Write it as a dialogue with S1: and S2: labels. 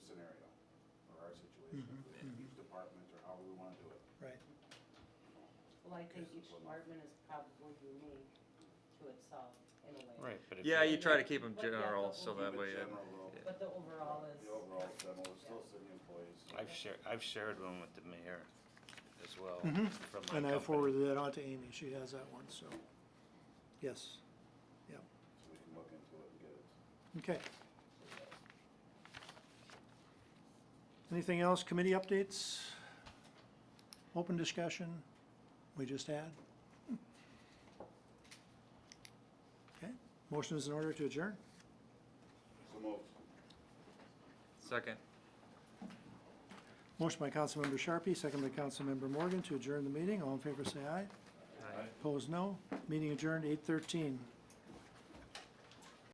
S1: is in each department or however we want to do it.
S2: right.
S3: Well, I think each department is probably unique to itself in a way.
S4: Right, but if.
S5: Yeah,
S4: it-
S5: you try to keep them
S3: But yeah,
S5: general,
S3: but
S5: so
S3: we'll
S5: that
S3: keep
S5: way,
S3: it
S5: it-
S3: general.
S5: yeah.
S3: But the overall is,
S1: The overall is general, it's still city employees.
S4: I've shared, I've shared one with the mayor as well.
S2: Mhm.
S4: from my
S2: And I
S4: company.
S2: forwarded that on to Amy, she has that one, so, yes,
S1: So we can look into it and get it.
S2: okay. Anything else, committee updates? Open discussion we just had? Okay, motion is in order to adjourn?
S1: So moved.
S5: Second.
S2: Motion by Councilmember Sharpie, second by Councilmember Morgan to adjourn the meeting, all in favor say aye.
S5: Aye.
S2: Opposed, no. Meeting adjourned eight thirteen.